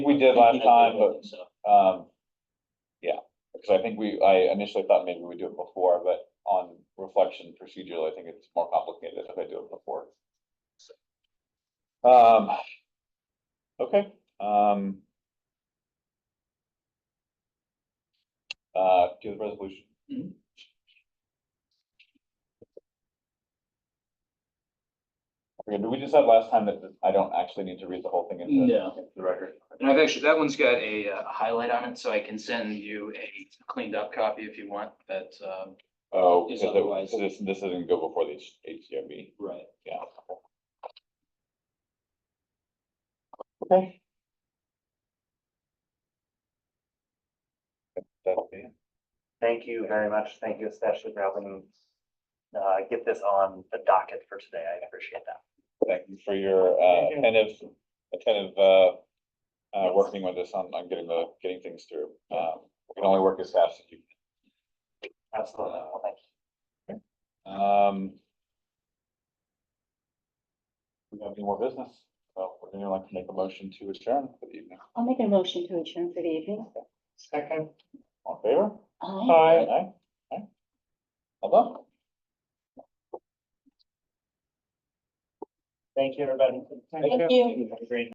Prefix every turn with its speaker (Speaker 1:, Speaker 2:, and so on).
Speaker 1: We did last time, but, um, yeah, because I think we, I initially thought maybe we'd do it before, but on reflection procedural, I think it's more complicated if I do it before. Um, okay, um. Uh, do the resolution. Okay, did we decide last time that I don't actually need to read the whole thing into
Speaker 2: No.
Speaker 1: into the record?
Speaker 2: And I've actually, that one's got a uh, highlight on it, so I can send you a cleaned up copy if you want, but, um.
Speaker 1: Oh,
Speaker 2: is
Speaker 1: because it-
Speaker 2: otherwise-
Speaker 1: so this, this doesn't go before the H- HDRB,
Speaker 2: Right.
Speaker 1: yeah. Okay. That'll be it.
Speaker 3: Thank you very much. Thank you especially for helping uh, get this on the docket for today. I appreciate that.
Speaker 1: Thank you for your, uh,
Speaker 3: Thank you.
Speaker 1: attentive, attentive, uh, uh, working with us on, on getting the, getting things through. Um, we can only work as fast as you can.
Speaker 3: Absolutely. Well, thank you.
Speaker 1: Um. We have any more business? Well, would anyone like to make a motion to adjourn for the evening?
Speaker 4: I'll make a motion to adjourn for the evening.
Speaker 3: Second.
Speaker 1: All in favor?
Speaker 4: Aye.
Speaker 1: Hi. Aye, aye. Hello?
Speaker 3: Thank you, everybody.
Speaker 4: Thank you.
Speaker 3: Have a great